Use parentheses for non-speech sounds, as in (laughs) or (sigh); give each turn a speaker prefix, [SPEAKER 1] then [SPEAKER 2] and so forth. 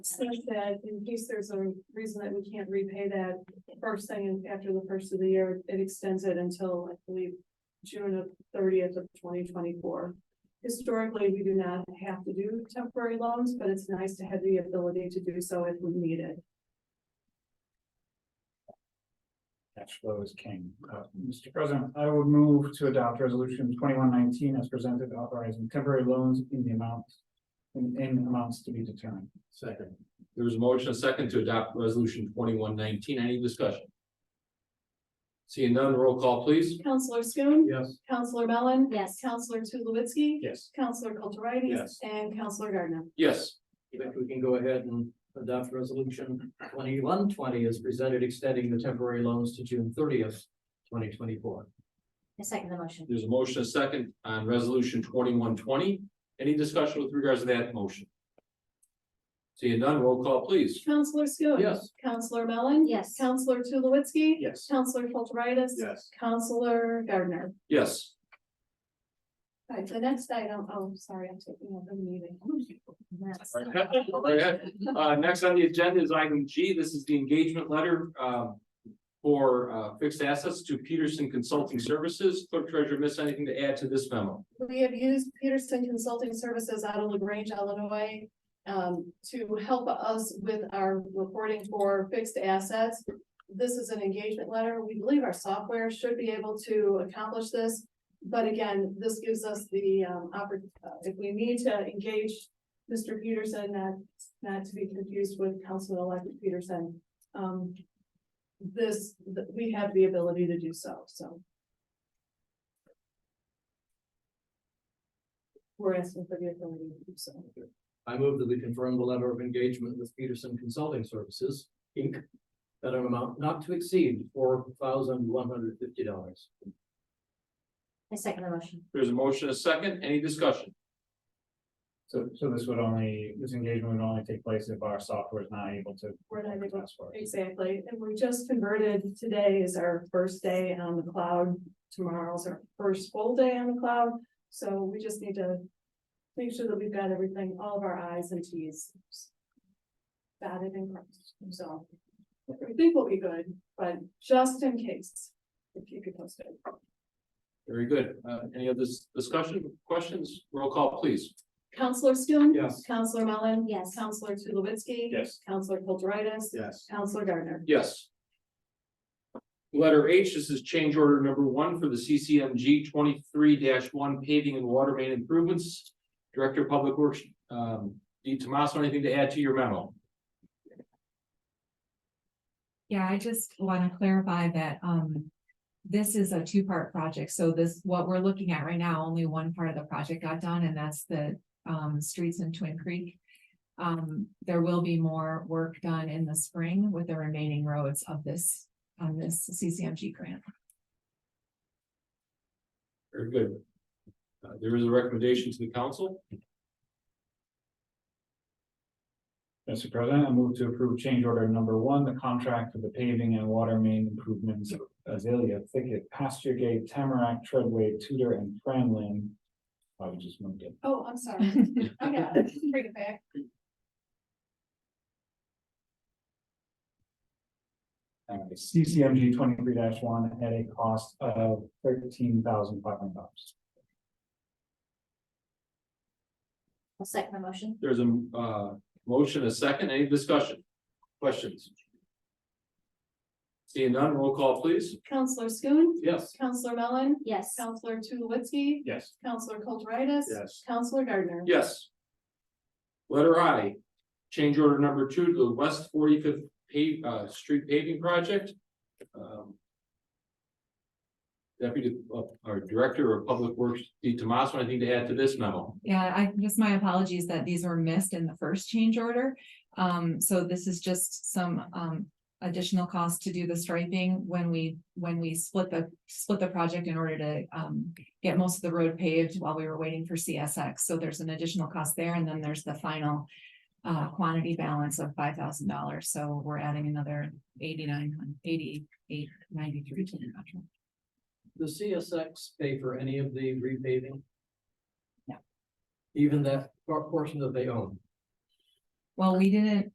[SPEAKER 1] says that in case there's a reason that we can't repay that first thing after the first of the year, it extends it until, I believe, June of thirtieth of twenty twenty-four. Historically, we do not have to do temporary loans, but it's nice to have the ability to do so if we need it.
[SPEAKER 2] Cash flow is king. Uh, Mr. President, I would move to adopt resolution twenty-one nineteen as presented authorizing temporary loans in the amount. In, in amounts to be determined.
[SPEAKER 3] Second. There's a motion, a second to adopt resolution twenty-one nineteen. Any discussion? Seeing none, roll call please.
[SPEAKER 1] Counselor Schoen.
[SPEAKER 3] Yes.
[SPEAKER 1] Counselor Mellon.
[SPEAKER 4] Yes,
[SPEAKER 1] Counselor Tulowitzki.
[SPEAKER 2] Yes.
[SPEAKER 1] Counselor Kulturitis.
[SPEAKER 3] Yes.
[SPEAKER 1] And Counselor Gardner.
[SPEAKER 3] Yes,
[SPEAKER 5] I think we can go ahead and adopt resolution twenty-one twenty as presented extending the temporary loans to June thirtieth, twenty twenty-four.
[SPEAKER 4] I second the motion.
[SPEAKER 3] there's a motion, a second on resolution twenty-one twenty. Any discussion with regards to that motion? Seeing none, roll call please.
[SPEAKER 1] Counselor Schoen.
[SPEAKER 5] Yes.
[SPEAKER 1] Counselor Mellon.
[SPEAKER 4] Yes, I
[SPEAKER 1] Counselor Tulowitzki.
[SPEAKER 2] Yes.
[SPEAKER 1] Counselor Kulturitis.
[SPEAKER 3] Yes.
[SPEAKER 1] Counselor Gardner.
[SPEAKER 3] Yes,
[SPEAKER 1] All right, the next item, oh, sorry, I'm taking over the meeting.
[SPEAKER 3] (laughs) Go right ahead. uh, next on the agenda is item G. This is the engagement letter, um. For, uh, fixed assets to Peterson Consulting Services. Clerk Treasurer, miss anything to add to this memo?
[SPEAKER 1] We have used Peterson Consulting Services out of LaGrange, Illinois, um, to help us with our reporting for fixed assets. This is an engagement letter. We believe our software should be able to accomplish this. But again, this gives us the, um, oppor- uh, if we need to engage Mr. Peterson, not, not to be confused with Councilman-elect Peterson. Um, this, th- we have the ability to do so, so we're asking for the ability to do so.
[SPEAKER 5] I move that we confirm the letter of engagement with Peterson Consulting Services, Inc. At an amount not to exceed four thousand one hundred fifty dollars.
[SPEAKER 4] second the motion.
[SPEAKER 3] There's a motion, a second, any discussion?
[SPEAKER 2] So, so this would only, this engagement would only take place if our software is not able to.
[SPEAKER 1] We're not able
[SPEAKER 2] That's why.
[SPEAKER 1] Exactly, and we just converted, today is our first day on the cloud, tomorrow's our first full day on the cloud, so we just need to. Make sure that we've got everything, all of our i's and t's. Dotted and crossed, so. I think we'll be good, but just in case, if you could post it.
[SPEAKER 3] Very good. Uh, any other dis- discussion, questions? Roll call, please.
[SPEAKER 1] Counselor Schoen.
[SPEAKER 5] Yes.
[SPEAKER 1] Counselor Mellon.
[SPEAKER 4] Yes.
[SPEAKER 1] Counselor Tulowitzki.
[SPEAKER 2] Yes.
[SPEAKER 1] Counselor Kulturitis.
[SPEAKER 5] Yes.
[SPEAKER 1] Counselor Gardner.
[SPEAKER 3] Yes. Letter H, this is change order number one for the CCMG twenty-three one paving and water main improvements. Director of Public Works, um, D. Tomaso, anything to add to your memo?
[SPEAKER 6] Yeah, I just want to clarify that, um, this is a two-part project, so this, what we're looking at right now, only one part of the project got done, and that's the, um, streets in Twin Creek. Um, there will be more work done in the spring with the remaining roads of this, on this CCMG grant.
[SPEAKER 3] Very good. Uh, there is a recommendation to the council.
[SPEAKER 2] Mr. President, I move to approve change order number one, the contract for the paving and water main improvements of Azalea Thicket, Pasture Gate, Tamarack, Treadway, Tudor, and Franlin. I would just moved it.
[SPEAKER 1] Oh, I'm
[SPEAKER 6] (laughs)
[SPEAKER 1] sorry, I got it, bring it back.
[SPEAKER 2] Uh, CCMG twenty-three one at a cost of thirteen thousand five hundred dollars.
[SPEAKER 4] I'll second the motion.
[SPEAKER 3] There's a, uh, motion, a second, any discussion? Questions? Seeing none, roll call, please.
[SPEAKER 1] Counselor Schoen.
[SPEAKER 3] Yes.
[SPEAKER 1] Counselor Mellon.
[SPEAKER 4] Yes, I
[SPEAKER 1] Counselor Tulowitzki.
[SPEAKER 2] Yes.
[SPEAKER 1] Counselor Kulturitis.
[SPEAKER 3] Yes.
[SPEAKER 1] Counselor Gardner.
[SPEAKER 3] Yes. Letter I, change order number two to the West Forty-Fifth pave, uh, street paving project. Um, Deputy, uh, or Director of Public Works, D. Tomaso, anything to add to this memo?
[SPEAKER 6] Yeah, I, just my apologies that these were missed in the first change order. Um, so this is just some, um, additional cost to do the striping when we, when we split the, split the project in order to, um, get most of the road paved while we were waiting for CSX. So there's an additional cost there, and then there's the final uh, quantity balance of five thousand dollars. So we're adding another eighty-nine, eighty-eight, ninety-three to the contract.
[SPEAKER 5] The CSX pay for any of the repaving?
[SPEAKER 6] No.
[SPEAKER 5] Even that por- portion that they own?
[SPEAKER 6] Well, we didn't,